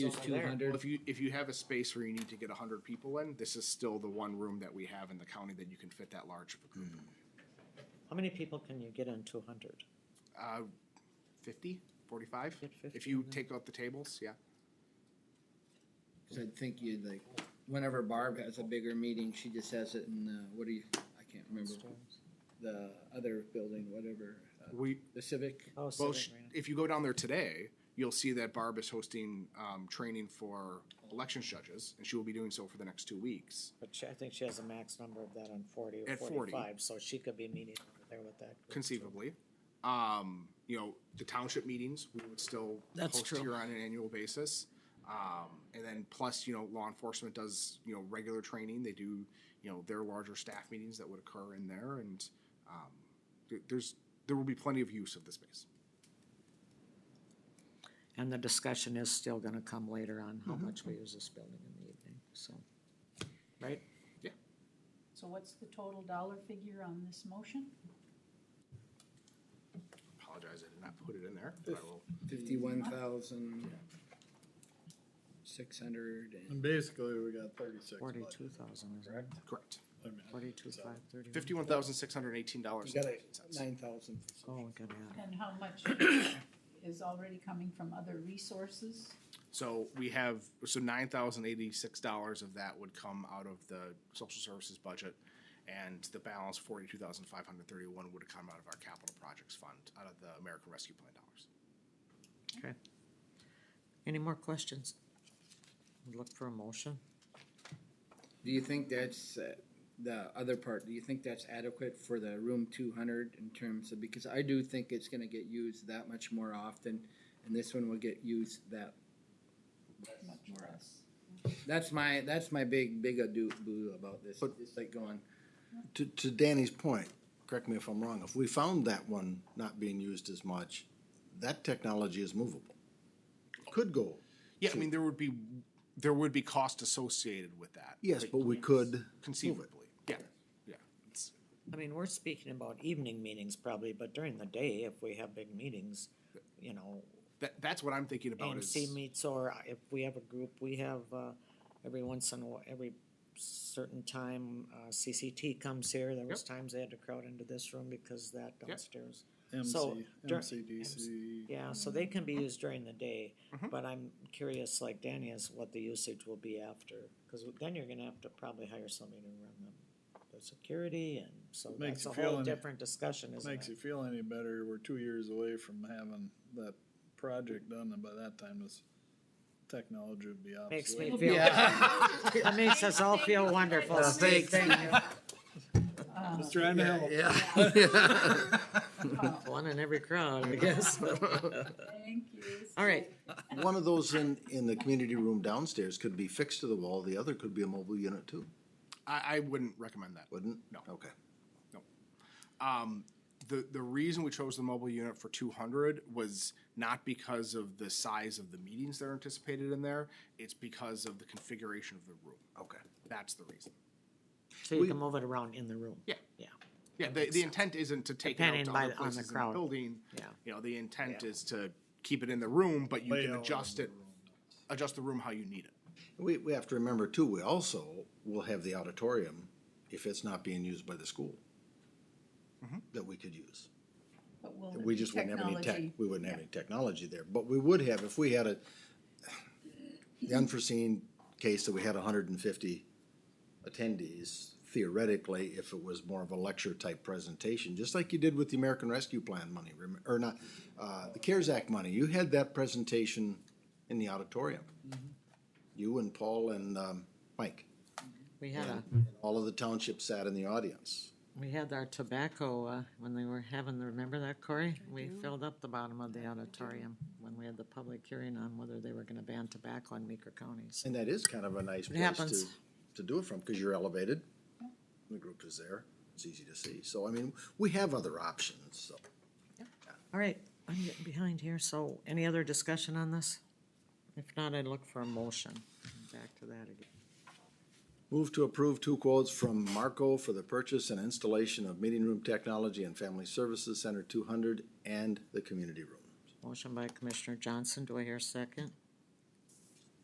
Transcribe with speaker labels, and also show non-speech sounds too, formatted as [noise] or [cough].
Speaker 1: use
Speaker 2: only
Speaker 1: two
Speaker 2: there.
Speaker 1: hundred.
Speaker 3: If you, if you have a space where you need to get hundred people in, this is still the one room that we have in the county that you can fit that large of a group.
Speaker 2: How many people can you get in two hundred?
Speaker 3: Uh, fifty, forty-five?
Speaker 2: Get 50
Speaker 3: If you
Speaker 2: in there.
Speaker 3: take out the tables, yeah.
Speaker 1: Cause I think you'd like, whenever Barb has a bigger meeting, she just has it in, uh, what do you, I can't remember, the other building, whatever, uh,
Speaker 3: We,
Speaker 1: the civic.
Speaker 2: Oh,
Speaker 3: Well,
Speaker 2: Civic
Speaker 3: sh-
Speaker 2: Arena.
Speaker 3: if you go down there today, you'll see that Barb is hosting um, training for elections judges, and she will be doing so for the next two weeks.
Speaker 2: But she, I think she has a max number of that on forty or
Speaker 3: At 40.
Speaker 2: forty-five, so she could be meeting over there with that. group, too.
Speaker 3: conceivably. Um, you know, the township meetings, we would still
Speaker 4: That's
Speaker 3: host
Speaker 4: true.
Speaker 3: here on an annual basis. Um, and then plus, you know, law enforcement does, you know, regular training. They do, you know, their larger staff meetings that would occur in there and, um, th- there's, there will be plenty of use of the space.
Speaker 2: And the discussion is still gonna come later on
Speaker 3: Mm-hmm.
Speaker 2: how much we use this building in the evening, so. Right?
Speaker 5: So what's the total dollar figure on this motion?
Speaker 3: Apologize, I did not put it in there, but I will.
Speaker 1: Fifty-one thousand, six hundred
Speaker 6: And
Speaker 1: and,
Speaker 6: basically, we got thirty-six.
Speaker 2: Forty-two
Speaker 6: budget,
Speaker 2: thousand, is it?
Speaker 6: Correct?
Speaker 3: Correct.
Speaker 6: I mean,
Speaker 2: Forty-two,
Speaker 6: so-
Speaker 2: five, thirty-one?
Speaker 3: Fifty-one thousand, six hundred and eighteen dollars.
Speaker 1: you got it, nine thousand.
Speaker 2: Oh, we could add.
Speaker 5: And how
Speaker 2: [coughs]
Speaker 5: much is already coming from other resources?
Speaker 3: So we have, so nine thousand eighty-six dollars of that would come out of the social services budget. And the balance, forty-two thousand five hundred thirty-one, would come out of our capital projects fund, out of the American Rescue Plan dollars.
Speaker 2: Okay. Any more questions? Look for a motion.
Speaker 1: Do you think that's, uh, the other part, do you think that's adequate for the room two hundred in terms of, because I do think it's gonna get used that much more often, and this one will get used that
Speaker 5: Much less.
Speaker 1: That's my that's my big big ado boo about this. it's like going
Speaker 7: To, to Danny's point, correct me if I'm wrong, if we found that one not being used as much, that technology is movable. Could go,
Speaker 3: Yeah, I mean, there would be, there would be cost associated with that.
Speaker 7: yes, but we could,
Speaker 3: Conceivably, yeah, yeah. It's-
Speaker 2: I mean, we're speaking about evening meetings probably, but during the day, if we have big meetings, you know,
Speaker 3: That, that's what I'm thinking about Oh, is,
Speaker 2: AMC meets, or if we have a group, we have, uh, every once in a while, every certain time, uh, CCT comes here, there was times they had to crowd into this room because that downstairs. So,
Speaker 6: MC,
Speaker 2: dur-
Speaker 6: MCDC.
Speaker 2: Yeah, so they can be used during the day, but I'm curious, like Danny is, what the usage will be after, cause then you're gonna have to probably hire somebody to run the, the security, and so
Speaker 6: Makes
Speaker 2: that's a
Speaker 6: you feel
Speaker 2: whole
Speaker 6: any-
Speaker 2: different discussion, isn't
Speaker 6: Makes you
Speaker 2: it?
Speaker 6: feel any better, we're two years away from having that project done, and by that time, this technology would be obsolete.
Speaker 2: Makes me feel, it makes us
Speaker 6: [laughs]
Speaker 2: all feel wonderful.
Speaker 5: Thank Uh,
Speaker 6: Just trying to help.
Speaker 1: [laughs]
Speaker 2: One in every crowd, I guess.
Speaker 5: [laughs] Thank you.
Speaker 2: All right,
Speaker 7: one of those in, in the community room downstairs could be fixed to the wall, the other could be a mobile unit too,
Speaker 3: I, I wouldn't recommend that.
Speaker 7: wouldn't?
Speaker 3: No.
Speaker 7: Okay.
Speaker 3: Um, the, the reason we chose the mobile unit for two hundred was not because of the size of the meetings that are anticipated in there. It's because of the configuration of the room.
Speaker 7: Okay.
Speaker 3: That's the reason.
Speaker 2: so you can move it around in the room.
Speaker 3: Yeah.
Speaker 2: Yeah,
Speaker 3: Yeah, the, the intent isn't to take it out
Speaker 2: Depending
Speaker 3: to
Speaker 2: by-
Speaker 3: other
Speaker 2: on the
Speaker 3: places in the
Speaker 2: crowd.
Speaker 3: building.
Speaker 2: yeah.
Speaker 3: You know, the intent is to keep it in the room, but you can
Speaker 6: Layout
Speaker 3: adjust it, adjust the room how you need it.
Speaker 7: We, we have to remember too, we also will have the auditorium if it's not being used by the school. That we could use.
Speaker 5: But will
Speaker 7: We
Speaker 5: the
Speaker 7: just wouldn't have any tech,
Speaker 5: technology,
Speaker 7: we wouldn't have any technology there, but we would have if we had a, the unforeseen case that we had hundred and fifty attendees, theoretically, if it was more of a lecture type presentation, just like you did with the American Rescue Plan money, rem- or not, uh, the CARES Act money, you had that presentation in the auditorium.
Speaker 5: Mm-hmm.
Speaker 7: You and Paul and, um, Mike,
Speaker 2: We had a,
Speaker 7: all of the township sat in the audience.
Speaker 2: we had our tobacco, uh, when they were having, the remember that, Corey? We filled up the bottom of the auditorium when we had the public hearing on whether they were gonna ban tobacco in Meeker counties.
Speaker 7: And that is kind of a nice place to,
Speaker 2: happens.
Speaker 7: to do it from, because you're elevated, the group is there, it's easy to see. So, I mean, we have other options, so.
Speaker 2: All right, I'm getting behind here, so any other discussion on this? If not, I'd look for a motion. Back to that again.
Speaker 7: Move to approve two quotes from Marco for the purchase and installation of meeting room technology and family services center two hundred and the community room.
Speaker 2: Motion by Commissioner Johnson, do I hear a second?